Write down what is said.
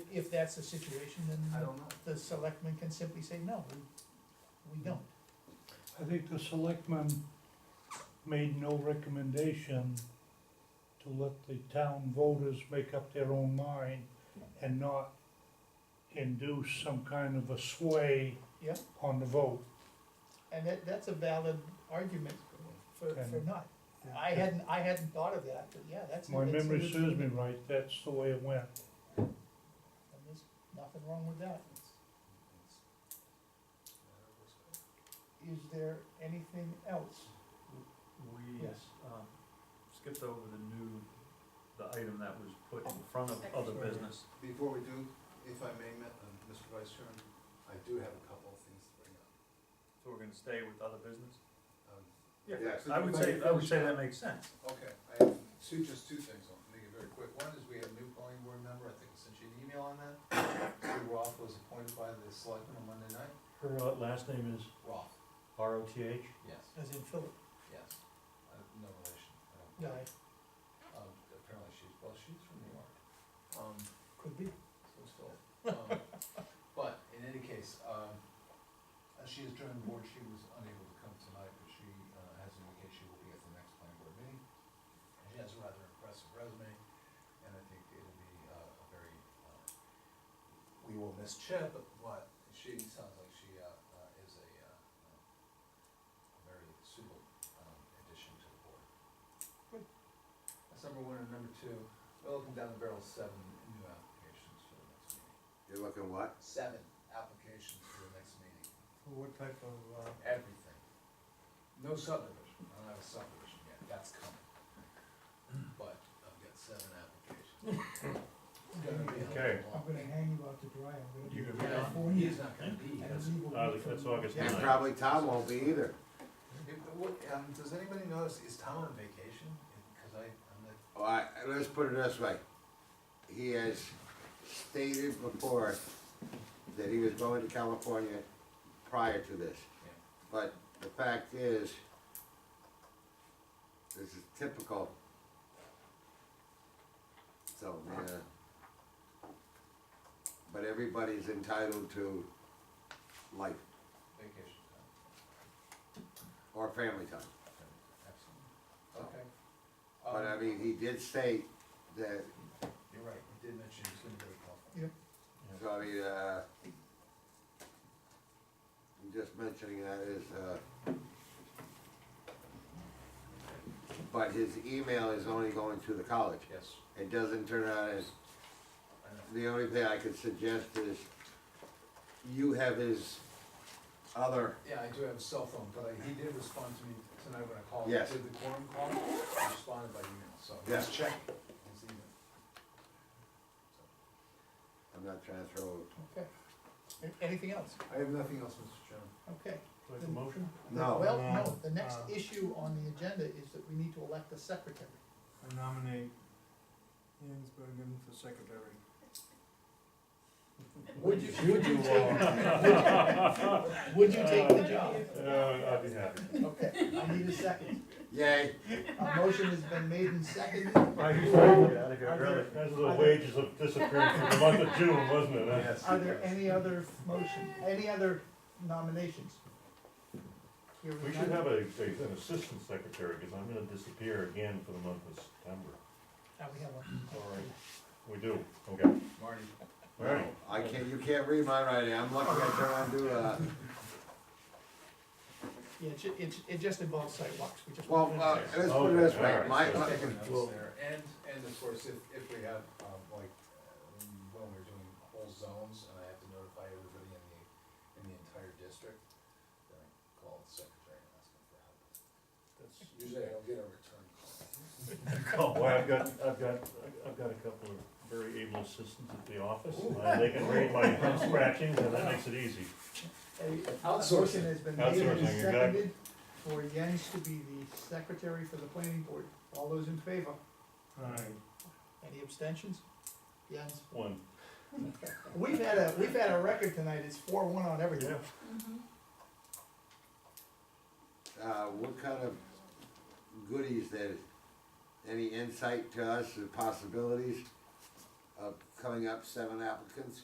if that's the situation, I then don't know. the selectmen can simply say, no, we, we don't. I think the selectmen made no recommendation to let the town voters make up their own mind and not induce some kind of a sway Yeah. on the vote. And that, that's a valid argument for, for Okay. not. I hadn't, I hadn't thought of that, but yeah, that's. My that's a memory good- serves me right, that's the way it went. and There's nothing wrong with that. Is there anything else? We, Yes. um, skipped over the new, the item that was put in front of Second. other business. Before we do, if I may, Ma- uh, Mr. Vice Chairman, I do have a couple of things to bring up. So we're gonna stay with other business? Um, Yeah, so I would everybody say, I would finish say up? that makes sense. Okay, I have two, just two things, I'll make it very quick. One is we have a new planning board member, I think I sent you an email on that. Sue Roth was appointed by the selectmen on Monday night. Her uh, last name is Roth, R O T H? yes, As in Philip, yes. I have No relation, I don't. no, Um, apparently she's, well, she's from New York. Um, could be. so it's Phil. Um, But in any case, um, as she has joined the board, she was unable to come tonight, but she uh, has indicated she will be at the next planning board meeting. And She has a rather impressive resume, and I think it'll be uh, a very, uh, we will miss Chip, but what, she sounds like she uh, uh, is a, uh, uh, a very suitable um, addition to the board. Good. That's number one, and number two, we're looking down the barrel, of seven new applications for the next meeting. You're looking what? Seven applications for the next meeting, What type of, everything. No subdivision, I don't have a subdivision yet, that's coming. But I've got seven applications. It's gonna be a Okay. long I'm gonna walk. hang you out to dry, I'm gonna be You in can- You know, California. He's not gonna be I here. don't leave a Uh, week from that's August And Yeah. probably Tom won't be either. If- what, um, does anybody notice, is Tom on vacation? Cause I, I'm not, All right, let's put it this way. He has stated before that he was going to California prior to this. Yeah. But the fact is, this is typical. So, yeah. But everybody's entitled to life vacation time, or family time. absolutely. Okay. Oh. But I Um, mean, he did state that You're right, you did mention he's gonna go to California. So I mean, uh, I'm just mentioning that is, uh, but his email is only going to the college. Yes, It doesn't turn out as, I know. the only thing I could suggest is you have his other, Yeah, I do have a cell phone, but I- he did respond to me tonight when I called. Yes. Did the quorum call? He responded by email, so Yes. he's checking his email. I'm not trying to throw, Okay. Anything else? I have nothing else, Mr. Chairman. Okay. like a motion? no. Well, no, No. the next Uh, issue on the agenda is that we need to elect a secretary. uh, I nominate Hansbergen for secretary. Would you, would you take? Would you take the job? Uh, I'd be happy. Uh, Okay, I need a second. Yay, A motion has been made and seconded. Get out of here early. That's the wages of disappearance for the month of June, wasn't it? huh? Yes. Are there any other motion, any other nominations? Here We should have a, a- an assistant secretary, because I'm gonna disappear again for the month of September. Uh, we have one. Alright. We do, okay. Marty, Alright. I can't, you can't read mine right now, I'm lucky I turned on to, uh, Yeah, it, ju- it, ju- it just involves sidewalks, we just. well, uh, let's put it this way, Okay, my, I'm all right, my- taking notes there, and, and of course, if, if we have, um, like, uh, when we're doing whole zones, and I have to notify everybody in the, in the entire district, then I call the secretary and ask him for help. Usually I'll get a return call. Oh, boy, I've got, I've got, I've got a couple of very able assistants at the office, and they can read my scratchings, and that makes it easy. A Outsourcing. motion has been made Outsourcing, and exactly. seconded for Jens to be the secretary for the planning board. All those in favor? Alright. Any abstentions? Jens? One, We've had a, we've had a record tonight, it's four one on everything. yeah, uh, what kind of goodies that, any insight to us, the possibilities of coming up seven applicants.